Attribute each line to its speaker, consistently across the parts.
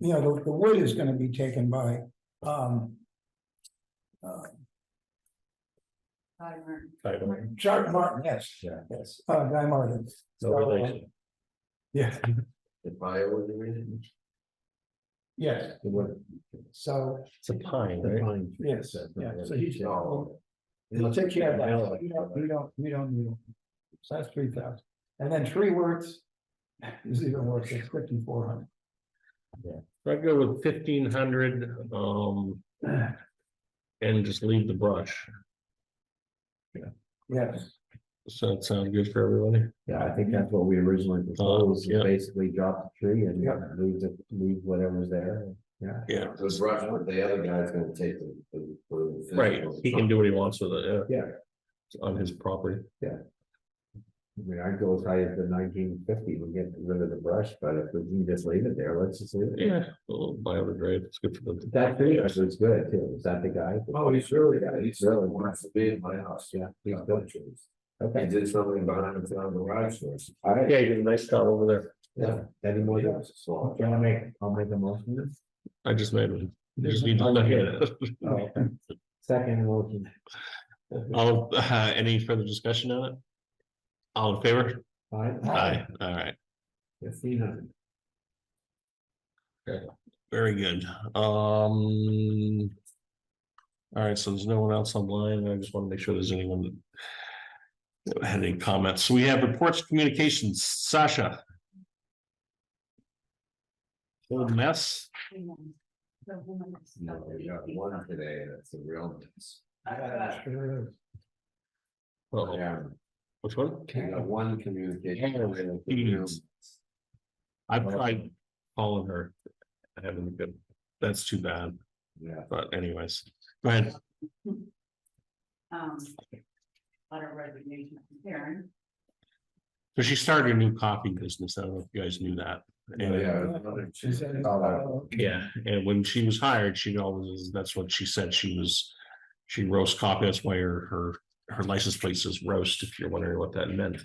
Speaker 1: you know, the, the wood is gonna be taken by, um. Uh,
Speaker 2: title.
Speaker 1: Chuck Martin, yes.
Speaker 2: Yeah.
Speaker 1: Yes, uh, Guy Martin.
Speaker 2: No relation.
Speaker 1: Yeah,
Speaker 3: If I were the reason.
Speaker 1: yes, so,
Speaker 2: It's a pine, right?
Speaker 1: yes, yeah, so he's.
Speaker 3: No.
Speaker 1: We'll take care of that, you don't, you don't, you don't need it. So that's three thousand, and then three words is even worse, it's fifty-four hundred.
Speaker 2: I'd go with fifteen hundred, um, and just leave the brush.
Speaker 1: Yes,
Speaker 2: Does that sound good for everybody?
Speaker 3: Yeah, I think that's what we originally proposed,
Speaker 2: yeah.
Speaker 3: is basically drop the tree and
Speaker 1: Yeah.
Speaker 3: leave the, leave whatever's there, yeah.
Speaker 2: Yeah.
Speaker 3: This rush, but the other guy's gonna take the, the.
Speaker 2: Right, he can do what he wants with it, yeah.
Speaker 3: Yeah.
Speaker 2: It's on his property.
Speaker 3: I mean, I'd go as high as the nineteen fifty, we get rid of the brush, but if we can just leave it there, let's just leave it.
Speaker 2: Yeah, a little biodegrade, it's good for the.
Speaker 3: That tree actually is good too, is that the guy? Oh, he's really, yeah, he's really wants to be in my house, yeah. He's got trees. Okay. He did something behind him on the garage doors. All right,
Speaker 2: Yeah, you did a nice job over there.
Speaker 3: yeah, any more? uh, Can I make, I'll make a motion to this?
Speaker 2: I just made one. You just need to look at it.
Speaker 3: Oh, Second motion.
Speaker 2: All, uh, any further discussion on it? All in favor? Aye, all right,
Speaker 3: Fifteen
Speaker 2: very good, um. All right, so there's no one else online, I just want to make sure there's anyone that. that Had any comments, we have reports, communications, Sasha. Old mess,
Speaker 3: No, we got one today, that's a real. mess.
Speaker 1: sure is.
Speaker 2: Uh-oh,
Speaker 3: Yeah,
Speaker 2: which one?
Speaker 3: we got one communication.
Speaker 2: Jeez. I've tried calling her, I haven't been, that's too bad,
Speaker 3: Yeah.
Speaker 2: but anyways, go ahead,
Speaker 4: Um. Letter of resignation from Karen.
Speaker 2: so she started a new coffee business, I don't know if you guys knew that. And-
Speaker 1: She said,
Speaker 3: Oh, that-
Speaker 1: uh,
Speaker 2: Yeah, and when she was hired, she always, that's what she said, she was, she roast coffee, that's why her, her, her license plate says roast, if you're wondering what that meant.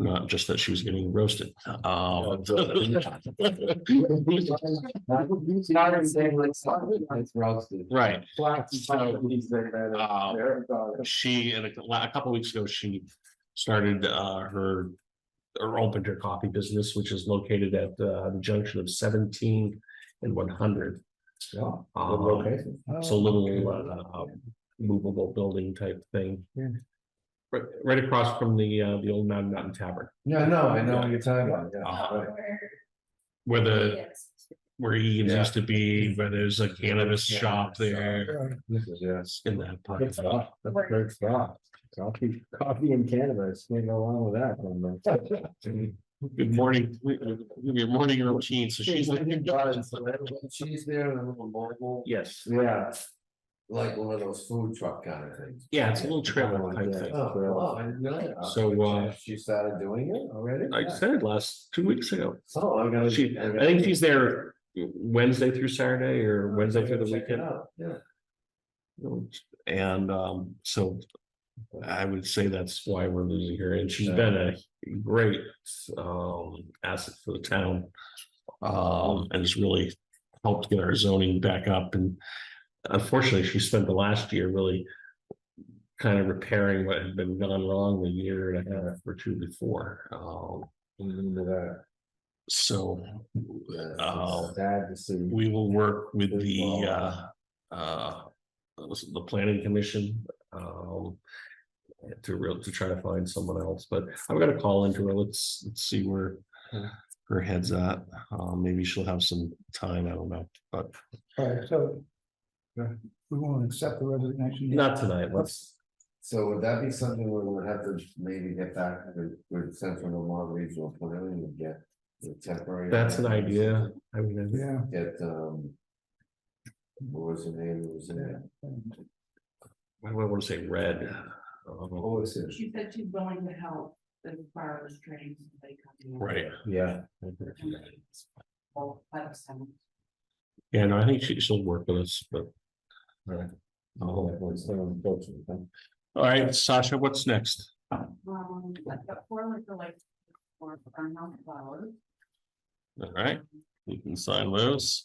Speaker 2: Not just that she was getting roasted, um.
Speaker 3: It's roasted.
Speaker 2: Right, So- Um,
Speaker 3: Well,
Speaker 2: she, and a la- a couple weeks ago, she started, uh, her, or opened her coffee business, which is located at, uh, the junction of seventeen and one hundred.
Speaker 3: Oh,
Speaker 2: Um, So little uh, um, movable building type thing.
Speaker 1: Yeah.
Speaker 2: Right, right across from the, uh, the old Mountain Mountain Tavern,
Speaker 3: No, no, I know what you're talking about, yeah.
Speaker 2: Uh,
Speaker 3: right.
Speaker 2: where the,
Speaker 4: Yes.
Speaker 2: where Egan's
Speaker 3: Yeah.
Speaker 2: used to be, where there's a cannabis
Speaker 3: Yeah.
Speaker 2: shop there.
Speaker 1: uh,
Speaker 3: This is, yes.
Speaker 2: It's in that parking
Speaker 3: Good
Speaker 2: lot.
Speaker 3: stuff, that's great stuff. Coffee, coffee and cannabis, can't go wrong with that. one, man.
Speaker 2: Good morning, uh, your morning routine, so she's.
Speaker 3: She's there in a little mobile.
Speaker 2: Yes,
Speaker 3: Yeah. Like one of those food truck kind of things.
Speaker 2: yeah, it's a little trailer
Speaker 3: Something
Speaker 2: type
Speaker 3: like that.
Speaker 2: thing.
Speaker 3: Oh, wow, I didn't know that.
Speaker 2: So, uh,
Speaker 3: She started doing it already?
Speaker 2: I said last, two weeks ago,
Speaker 3: So I'm gonna.
Speaker 2: she, I think she's there Wednesday through Saturday or Wednesday through the
Speaker 3: Check it
Speaker 2: weekend.
Speaker 3: out, Yeah.
Speaker 2: And um, so I would say that's why we're losing her, and she's been a great um asset for the town. Um, and has really helped get our zoning back up, and unfortunately, she spent the last year really. Kind of repairing what had been gone wrong the year and a half or two before, um,
Speaker 3: Remember that.
Speaker 2: so
Speaker 3: Yeah, it's
Speaker 2: Oh.
Speaker 3: Sad to see.
Speaker 2: we will work with
Speaker 3: Good
Speaker 2: the
Speaker 3: call.
Speaker 2: uh, uh, was it the planning commission, um. To real, to try to find someone else, but I'm gonna call into her, let's, let's see where her head's at, uh, maybe she'll have some time, I don't know, but
Speaker 1: All right, so. uh, We won't accept the resignation. yet?
Speaker 2: not tonight, let's.
Speaker 3: So would that be something we would have to maybe get back with, with Central Vermont Regional Planning and get the temporary?
Speaker 2: That's an idea, I mean,
Speaker 1: Yeah.
Speaker 3: Get, um. What was the name, What was the name?
Speaker 2: I would wanna say red. um,
Speaker 3: What was it?
Speaker 4: She said she's willing to help as far as training. somebody coming in.
Speaker 2: Right,
Speaker 3: Yeah.
Speaker 4: Well, that's some.
Speaker 2: yeah, no, I think she, she'll work with us, but.
Speaker 3: Right.
Speaker 2: Oh,
Speaker 3: Oh, that was so unfortunate. huh?
Speaker 2: all right, Sasha, what's next?
Speaker 4: Um, I've got four liquor licenses for Farmhouse Flowers. um,
Speaker 2: All right, we can sign those.